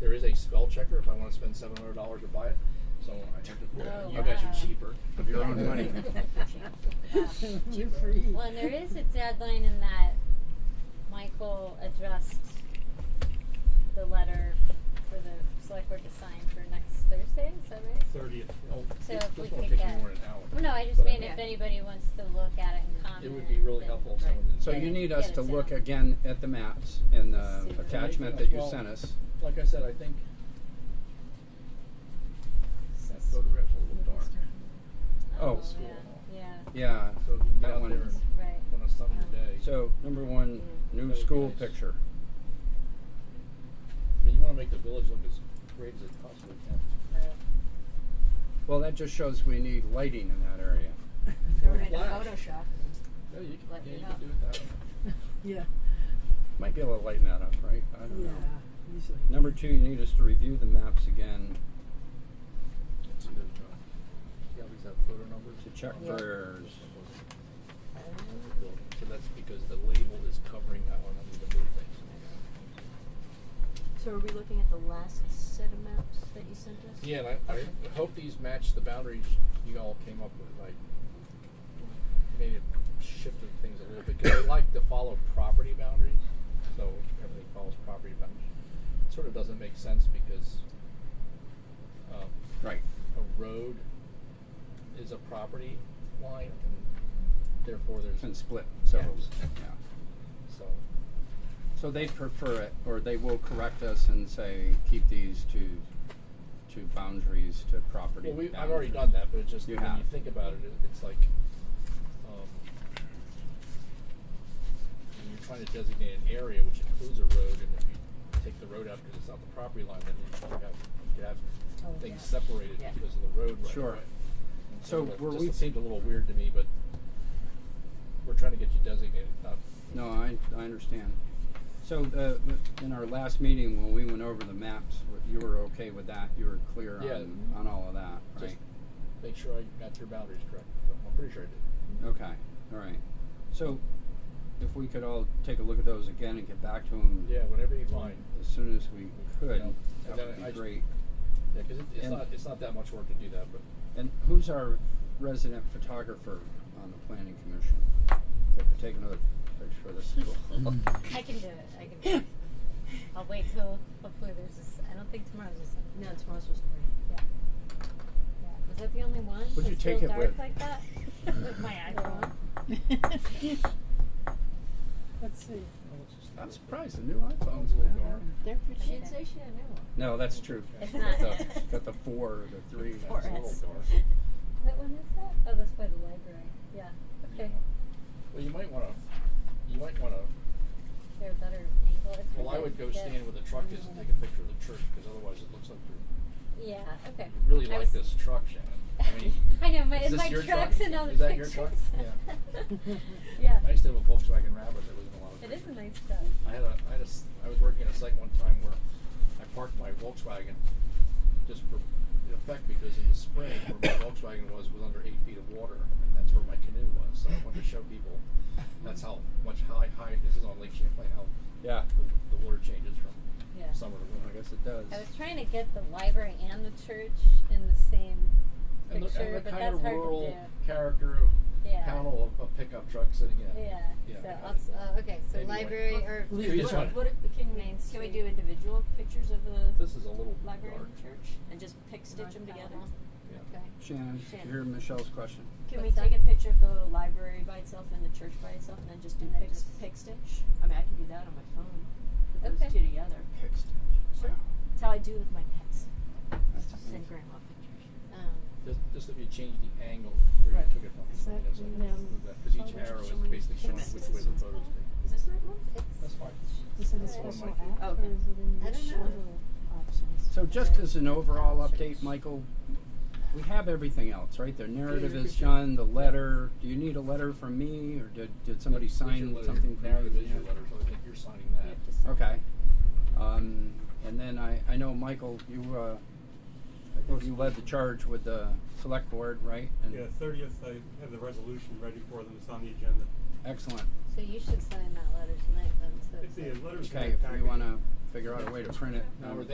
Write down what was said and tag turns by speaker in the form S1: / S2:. S1: There is a spell checker if I want to spend seven hundred dollars to buy it. So I think that
S2: Oh,
S1: you guys
S2: wow.
S1: are cheaper.
S3: Of your own money.
S4: You're free.
S2: Well, and there is a deadline in that Michael addressed the letter for the select board to sign for next Thursday, is that right?
S1: Thirtieth.
S2: So
S1: oh, This
S2: if we
S1: won't
S2: could
S1: take you
S2: get-
S1: more than an hour.
S2: Well, no, I
S1: But
S2: just mean
S1: think
S2: if anybody wants to look at it and comment.
S1: It would be really
S2: then-
S1: helpful if
S2: right.
S1: someone did.
S3: So
S2: Get
S3: you
S2: it-
S3: need us
S2: get
S3: to
S2: it
S3: look
S2: down.
S3: again at the maps and the
S2: Super.
S3: attachment that you sent us.
S1: Like I said, I think that photograph's a little dark.
S3: Oh.
S2: yeah, yeah,
S3: Yeah,
S1: So if you can get
S3: That
S1: out
S3: one.
S1: there
S2: right.
S1: on a summer day.
S3: so number one, new
S1: That would
S3: school
S1: be nice.
S3: picture.
S1: I mean, you want to make the village look as great as it possibly can.
S3: Well, that just shows we need lighting in that area.
S5: If you were going to
S1: Flash.
S5: Photoshop,
S1: Yeah, you can,
S5: Lighten
S1: yeah,
S5: it
S1: you
S5: up.
S1: can do it that way.
S4: Yeah,
S3: Might be able to lighten that up, right? I don't
S4: yeah,
S3: know.
S4: usually.
S3: Number two, you need us to review the maps again
S1: It's a good job. Yeah, we have photo numbers.
S3: to check
S5: Yeah.
S3: for
S1: So that's because the label is covering that one under the blue things.
S5: so are we looking at the last set of maps that you sent us?
S1: Yeah, and I, I hope these match the boundaries you all came up with, like, maybe it shifted things a little bit, because I like to follow property boundaries, so everything follows property boundaries. It sort of doesn't make sense because, um,
S3: right.
S1: a road is a property line, and therefore there's,
S3: And split several.
S1: Yeah.
S3: yeah.
S1: so,
S3: So they prefer it, or they will correct us and say, keep these to, to boundaries, to property
S1: well, we,
S3: boundaries.
S1: I've already done that, but it's just,
S3: You
S1: when you
S3: have.
S1: think about it, it, it's like, um, when you're trying to designate an area which includes a road, and if you take the road out because it's not the property line, then you could have, you could have
S5: Oh,
S1: things
S5: yeah.
S1: separated
S5: Yeah.
S1: because of the road right
S3: Sure.
S1: away. And
S3: So
S1: that
S3: were
S1: just
S3: we-
S1: seemed a little weird to me, but we're trying to get you designated, not
S3: No, I, I understand. So, uh, in our last meeting, when we went over the maps, you were okay with that, you were clear
S1: Yeah.
S3: on, on all of that,
S1: Just-
S3: right?
S1: make sure I got your boundaries correct. So I'm pretty sure I did.
S3: Okay, all right. So, if we could all take a look at those again and get back to them
S1: Yeah, whenever you find.
S3: as soon as we could,
S1: Yeah. And
S3: that would
S1: then
S3: be
S1: I-
S3: great.
S1: Yeah, because it, it's
S3: And-
S1: not it's not that much work to do that, but
S3: And who's our resident photographer on the planning commission? That could take another picture of this.
S2: I can do it. I can do it. I'll wait till hopefully there's a. s- I don't think tomorrow's a Sunday.
S5: No, tomorrow's supposed to
S2: Yeah. Yeah. Was that the only one?
S3: What'd you
S2: That's
S3: take
S2: still
S3: it
S2: dark
S3: with?
S2: like that? with my iPhone.
S4: Let's see.
S5: Oh,
S3: I'm surprised, the new iPhones,
S1: Sounds a little
S3: man.
S1: dark.
S4: They're
S5: rain.
S4: pretty.
S5: She'd say she didn't know.
S3: No, that's true.
S2: It's
S3: Got
S2: not.
S3: the, got the four or the three.
S5: Four
S1: It's a little
S5: S.
S1: dark.
S2: What one is that? Oh, that's by the library. Yeah.
S1: Yeah.
S2: Okay.
S1: Well, you might want to. You might want to.
S2: They're a better angle. It's
S1: Well, I
S2: hard
S1: would
S2: to
S1: go
S2: get-
S1: stand where the truck is and take a picture of the church because otherwise it looks like you're,
S2: Yeah. Okay.
S1: you really
S2: I
S1: like
S2: was-
S1: this truck, Shannon. I mean,
S2: I know my
S1: is
S2: and
S1: this
S2: my
S1: your
S2: trucks
S1: truck?
S2: and all the
S1: Is that your
S2: pictures.
S1: truck?
S2: Yeah.
S1: I used to have a Volkswagen Rabbit that was in a lot of.
S2: It
S1: pictures.
S2: is a nice truck.
S1: I had a, I had a s I was working at a site one time where I parked my Volkswagen just for the effect because in the spring where my Volkswagen was was under eight feet of water and that's where my canoe was. So I wanted to show people that's how much high high this is on Lake Champlain how
S3: Yeah,
S1: the, the water changes from
S2: Yeah.
S1: summer to
S3: I
S1: winter.
S3: guess it does.
S2: I was trying to get the library and the church in the same
S1: And the,
S2: picture,
S1: and the
S2: but
S1: kind
S2: that's
S1: of
S2: hard
S1: rural
S2: to
S1: character of
S2: Yeah.
S1: panel of a pickup truck sitting
S2: do.
S1: in.
S2: Yeah.
S1: Yeah, I
S2: so
S1: got
S2: I'll s- uh, okay, so
S1: Maybe like-
S2: library or
S4: Leave
S1: If you just
S4: Yeah.
S1: want
S5: What if, can we,
S2: Main
S5: can we
S2: Street.
S5: do individual pictures of the
S1: this is a little
S5: library
S1: dark.
S5: and church and just pick stitch them together?
S1: Yeah.
S2: Okay.
S3: Shannon,
S5: Shannon.
S3: you hear Michelle's question.
S5: Can we
S2: What's
S5: take
S2: that?
S5: a picture of the library by itself and the church by itself and then just do
S2: And then
S5: pick, s-
S2: just-
S5: pick stitch? I mean, I can do that on my phone. Put
S2: Okay.
S5: those two together.
S3: Pick stitch.
S5: Sure. That's how I do with my pets.
S3: That's
S5: Send
S3: amazing.
S5: grandma pictures.
S2: Um,
S1: Just, just if you change the angle where
S5: Right.
S1: you took it from.
S4: Is that
S1: you know, so
S4: the, um,
S1: that- 'cause each
S4: photo
S1: arrow is
S4: showing-
S1: basically showing which
S5: Is this
S1: way the
S5: one's
S1: photo is
S5: called?
S1: taken.
S5: Is this the right one?
S1: That's fine.
S4: Is it a
S2: Alright.
S4: special
S1: Okay.
S4: act or
S5: Okay.
S4: is it in the
S2: I don't know.
S4: general options?
S3: So just
S2: Okay.
S3: as an overall update,
S2: Church.
S3: Michael, we have everything else, right? The narrative
S1: Yeah,
S3: is
S1: yeah.
S3: done, the letter, do you need a letter from me, or did, did somebody
S1: That's your
S3: sign
S1: letter.
S3: something from you?
S1: Narrative is
S3: Yeah.
S1: your letter, so I think you're signing
S5: You
S1: that.
S5: have to sign.
S3: Okay. Um, and then I, I know, Michael, you, uh, I think you led the charge with the select board, right? And-
S6: Yeah, thirtieth, I have the resolution ready for them, it's on the agenda.
S3: Excellent.
S2: so you should sign that letter tonight then. So
S6: If the letter's in
S3: Okay,
S6: the
S3: if we
S6: package-
S3: wanna figure out a way to print it.
S1: Now,
S3: um,
S1: were they